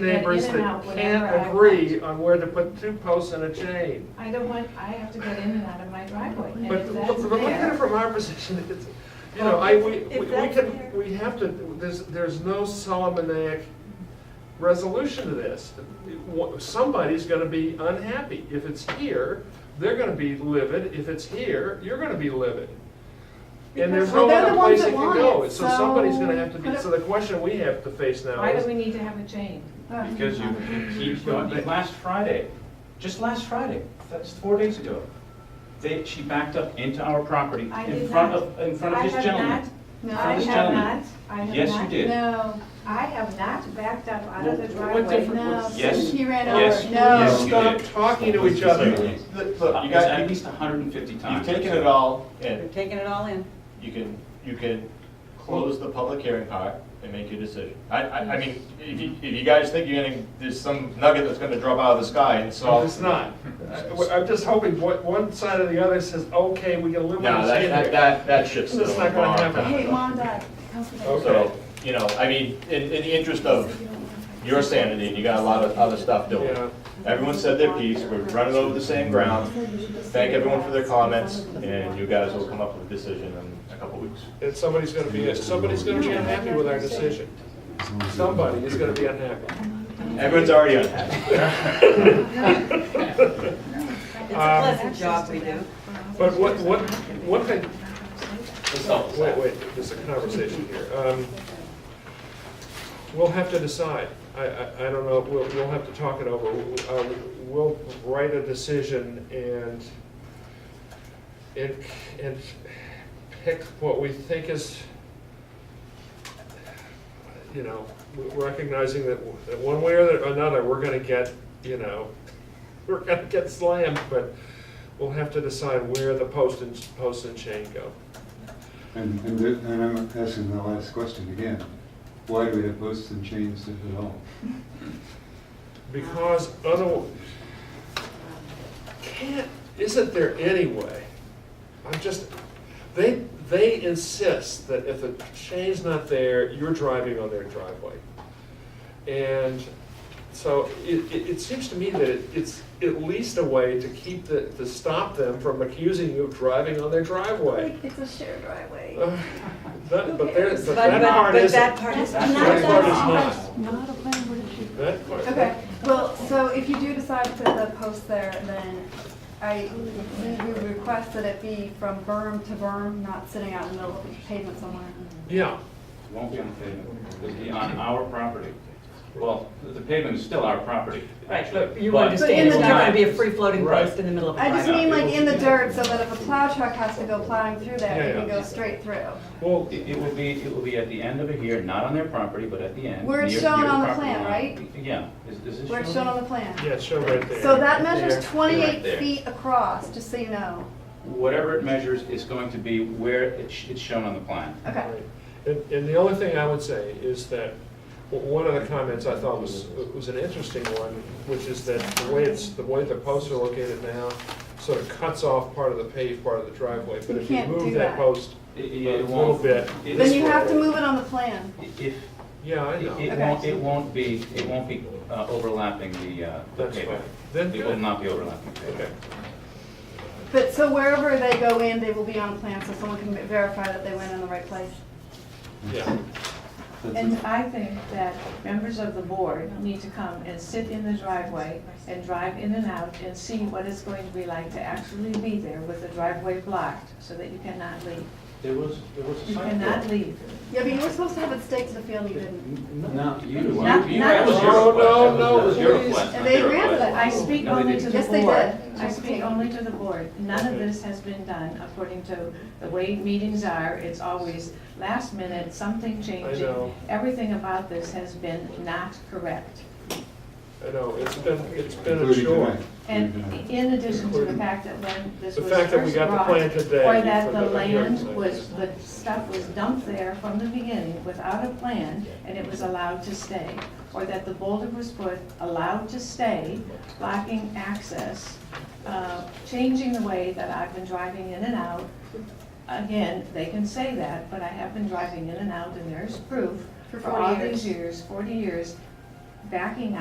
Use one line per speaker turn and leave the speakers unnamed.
to get
neighbors
in and out
that
whenever
can't
I
agree
want.
on where to put two posts and a chain.
I don't want, I have to get in and out of my driveway, and
But,
if
but
that's
but look at it
there,
from our position, it's, you
Well,
know, I,
if-
we,
if
we we
that's
can,
there-
we have to, there's, there's no Solomonic resolution to this. Wha- Somebody's gonna be unhappy. If it's here, they're gonna be livid. If it's here, you're gonna be livid. And there's
Because-
no
Well, they're
other
the ones
place
that
it can
want
go,
it,
so somebody's
so
gonna have to be,
put
so
it-
the question we have to face now
why
is.
do we need to have a chain?
Because you keep going, like, last Friday, just last Friday, that's four days ago, they, she backed up into our property
I
in
did
front
not.
of, in front of this
I
gentleman.
have
No.
not, I have
This gentleman.
not, I have not.
Yes, you did.
No,
I have not backed up out of the
Well, what
driveway.
difference-
no,
Yes.
he ran
Yes.
over, no.
Yes. you
Stop
did.
talking to each other.
Look,
Uh,
look, you
it's At
guys,
least hundred and fifty
you've
times.
taken it all,
We're
and
taking it all in.
you can, you can close the public hearing part and make your decision. I, I, I mean, if you, if you guys think you're gonna, there's some nugget that's gonna drop out of the sky and
No,
solve.
It's not. I- I'm just hoping one, one side or the other says, okay, we can live with
No,
this.
that, that, that, that shit's still
That's
a
not gonna
long
happen.
time
Hey,
ago.
mom, dad, come for this.
So, you know, I mean, in, in the interest of your sanity, you got a lot of other stuff doing.
Yeah.
Everyone said their piece, we're running over the same ground. Thank everyone for their comments, and you guys will come up with a decision in a couple weeks.
And somebody's gonna be, somebody's gonna be unhappy with our decision. Somebody is gonna be unhappy.
Everyone's already unhappy.
It's a
Um,
pleasant job we do.
But what, what, one thing, Oh, wait, wait, there's a conversation here. Um, We'll have to decide. I, I, I don't know, we'll, we'll have to talk it over. Uh, We'll write a decision and, and, and pick what we think is, you know, recognizing that, that one way or another, we're gonna get, you know, we're gonna get slammed, but we'll have to decide where the post and, post and chain go.
And, and the- and I'm asking the last question again. Why do we have posts and chains at all?
Because other, can't, isn't there any way? I'm just, they, they insist that if the chain's not there, you're driving on their driveway. And so it, it, it seems to me that it- it's at least a way to keep the, to stop them from accusing you of driving on their driveway.
It's a shared driveway.
Uh, That, but there, but
But,
that
but,
part
but
isn't.
that part is.
That part is not.
Not a planning board issue.
That part.
Okay, well, so if you do decide to put the post there, then I, we would request that it be from berm to berm, not sitting out in the middle of the pavement somewhere.
Yeah.
Won't be on the pavement, it'll be on our property. Well, the- the pavement is still our property,
Right,
actually.
but you understand
in
it's
the
not gonna be a
Right.
free-floating
Right.
post in the middle of a
I just
driveway.
mean like in the dirt, so that if a plow truck has to go plowing through there, it can
Yeah, yeah.
go straight through.
Well,
It it will be, it will be at the end of it here, not on their property, but at the end.
Where it's
near-
shown
near
on the
property
plan,
line.
right?
Yeah, is, is this
Where it's shown on the plan.
yeah, show right there.
So that measures
There.
Right there.
twenty-eight feet across, just so you know.
Whatever it measures is going to be where it's, it's shown on the plan.
Okay.
Right. And, and the only thing I would say is that, w- one of the comments I thought was, was an interesting one, which is that the way it's, the way the posts are located now, sort of cuts off part of the paved part of the driveway, but
You
if you
can't
move
do
that
that.
post,
It- it
A
won't-
little bit.
it-
Then you have to move it on the plan.
If,
yeah, I
it
know.
it won't, it won't be, it won't be uh, overlapping the, uh, the
That's
pavement.
fine. Then
It will
good.
not be overlapping.
Okay.
But, so wherever they go in, they will be on a plan, so someone can verify that they went in the right place.
Yeah.
That's
And
it.
I think that members of the board need to come and sit in the driveway and drive in and out and see what it's going to be like to actually be there with the driveway blocked, so that you cannot leave.
There was, there was
You cannot leave.
Yeah, but you were supposed to have it staked to the field, and you didn't.
No, you, you,
Not-
you-
not-
that was your
No,
request.
no,
That was-
no,
that was your
please.
request,
And
not
they
their
ran with
request.
it.
I speak
No, they
only
didn't.
to the
Yes, they
board.
did.
I speak only to the board. None of this has been done according to the way meetings are. It's always last minute, something changing.
know.
Everything about this has been not correct.
I know, it's been, it's been a
Including
chore.
tonight.
And
Including tonight.
in addition to the fact that when this
The
was
fact
first
that we got the
brought,
plan today
or that
for
the
the hearing
land
site,
was,
yeah.
the stuff was dumped there from the beginning without a plan, and it was allowed to stay, or that the boulder was put, allowed to stay, blocking access, uh, changing the way that I've been driving in and out. Again, they can say that, but I have been driving in and out, and there's proof
For
for all
40 years.
these years, forty years, backing